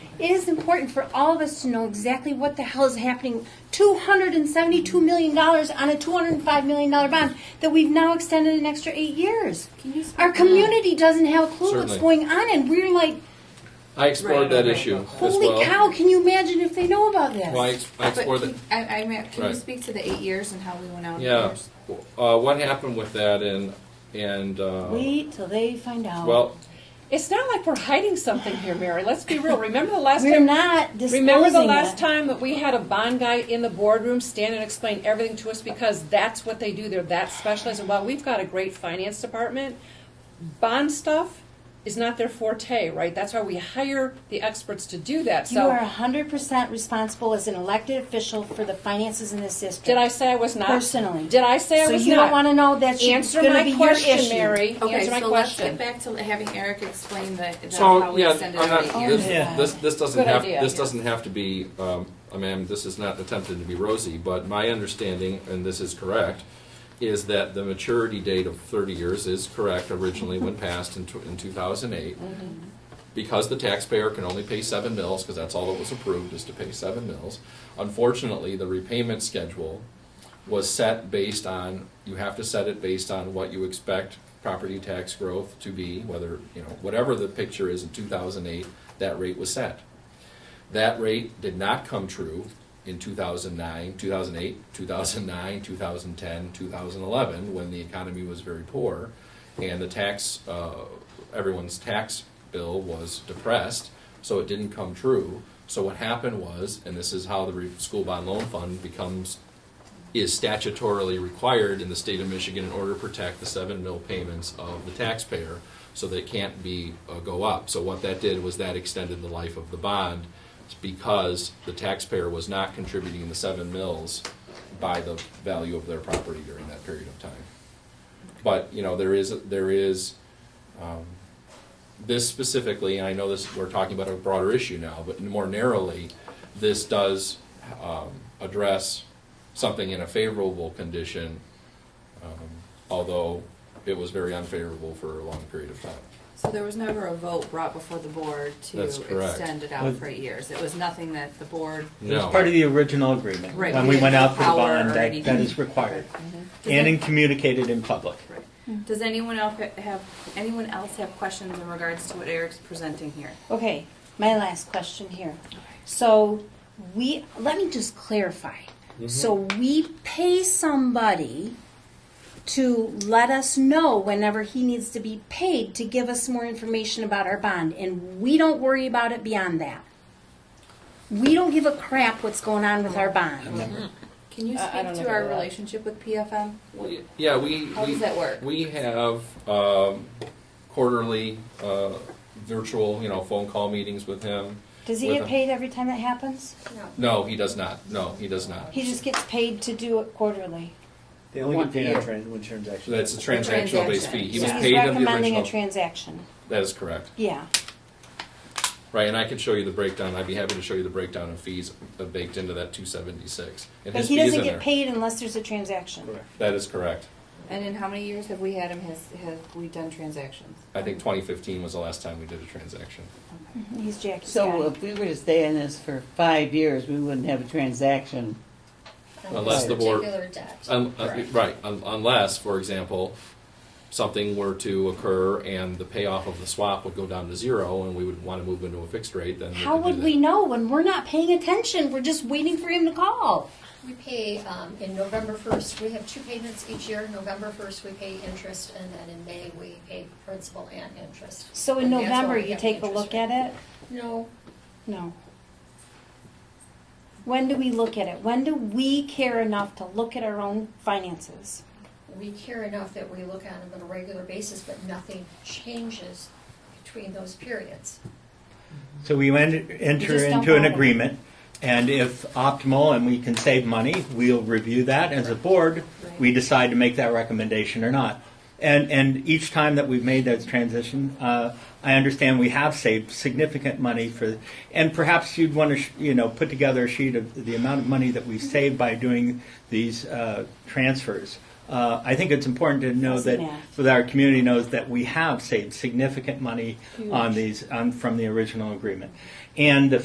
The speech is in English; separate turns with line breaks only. It is important for all of us to know exactly what the hell is happening. $272 million on a $205 million bond that we've now extended an extra eight years. Our community doesn't have a clue what's
Certainly.
going on, and we're like,
I explored that issue as
holy
well.
cow, can you imagine if they know about this?
Well, I, ex- I
But
explored
can-
that.
I, I mean, can you
Right.
speak to the eight years and how we went out? in
Yeah.
years?
Uh, what happened with that and, and, uh,
Wait till they find out.
well,
It's not like we're hiding something here, Mary. Let's be real. Remember the last
we're
time?
not disclosing
Remember the last
it.
time that we had a bond guy in the boardroom stand and explain everything to us because that's what they do. They're that specialized. And while we've got a great finance department, bond stuff is not their forte, right? That's why we hire the experts to do that.
You are
So
hundred percent responsible as an elected official for the finances in this district.
did I say I was not?
Personally.
Did I say I
So
was
you
not?
don't wanna know that's your-
Answer
gonna
my
be your
question,
issue.
Mary.
Okay,
Answer my
so let's
question.
get back to having Eric explain the, the how
so,
we
yeah,
extended
I'm
our eight
not,
years.
this,
Yeah.
this, this doesn't
Good
have,
idea.
this doesn't have to be, um, I mean, this is not attempted to be rosy, but my understanding, and this is correct, is that the maturity date of thirty years is correct originally when passed in, tw- in two thousand eight. because the taxpayer can only pay seven mills, because that's all that was approved, is to pay seven mills. Unfortunately, the repayment schedule was set based on, you have to set it based on what you expect property tax growth to be, whether, you know, whatever the picture is in two thousand eight, that rate was set. That rate did not come true in 2009, 2008, 2009, 2010, 2011, when the economy was very poor and the tax, uh, everyone's tax bill was depressed, so it didn't come true. So what happened was, and this is how the re- school bond loan fund becomes is statutorily required in the state of Michigan in order to protect the seven mil payments of the taxpayer, so they can't be, uh, go up. So what that did was that extended the life of the bond, because the taxpayer was not contributing the seven mils by the value of their property during that period of time. But, you know, there is, there is, um, this specifically, and I know this, we're talking about a broader issue now, but more narrowly, this does um, address something in a favorable condition, um, although it was very unfavorable for a long period of time.
So there was never a vote brought before the board to
That's correct.
extend it out
Well-
for eight years. It was nothing that the board.
It was
No.
part of the original agreement.
Right,
When
we
we went
didn't
out for the
power
bond,
or
that,
anything.
that is required.
Does
And
it-
in- communicated in public.
Right. Does anyone else ha- have anyone else have questions in regards to what Eric's presenting here?
Okay, my last question here. So we, let me just clarify.
Mm-hmm.
So we pay somebody to let us know whenever he needs to be paid to give us more information about our bond, and we don't worry about it beyond that. We don't give a crap what's going on with our
Mm-hmm.
bond.
Can you
I- I
speak
don't
to
know
our
about that.
relationship with PFM?
Yeah, we.
How
we-
does that work?
We have um, quarterly uh, virtual, you know, phone call meetings with him.
Does he
With
get
a-
paid every time that happens?
No, he does not. No, he does not.
He just gets paid to do it quarterly.
They only get
One
paid
year.
on trans, one transaction.
That's a transactional based fee. He was
He's
paid in the
recommending a
original.
transaction.
That is correct.
Yeah.
Right, and I could show you the breakdown, I'd be happy to show you the breakdown of fees baked into that two seventy-six. And
But
his
he
fees
doesn't
in
get
there.
paid unless there's a transaction.
Correct.
That is correct.
And in how many years have we had him? Has have we done transactions?
I think twenty fifteen was the last time we did a transaction.
He's Jackie
So
uh,
Scott.
if we were to stay in this for five years, we wouldn't have a transaction.
Unless the board-
Particular debt.
Un- uh, Right, un- unless, for example, something were to occur and the payoff of the swap would go down to zero and we would want to move into a fixed rate, then we
How
could do
would
that.
we know when we're not paying attention? We're just waiting for him to call.
We pay, um, in November first, we have two payments each year. November first, we pay interest, and then in May, we pay principal and interest.
So in
And that's why
November,
we
you
have the
take a
interest
look at
rate.
it?
No,
No. When do we look at it? When do we care enough to look at our own finances?
we care enough that we look at them on a regular basis, but nothing changes between those periods.
So we en-
You
enter
just don't
into an
bother.
agreement, and if optimal and we can save money, we'll review that as a board. We decide to make that recommendation or not. And, and each time that we've made that transition, uh, I understand we have saved significant money for, and perhaps you'd want to, sh- you know, put together a sheet of the amount of money that we've saved by doing these uh, transfers. Uh, I think it's important to know
Fuzzy
that
math.
so that our community knows that we have saved significant money on these, on, from the original agreement. And the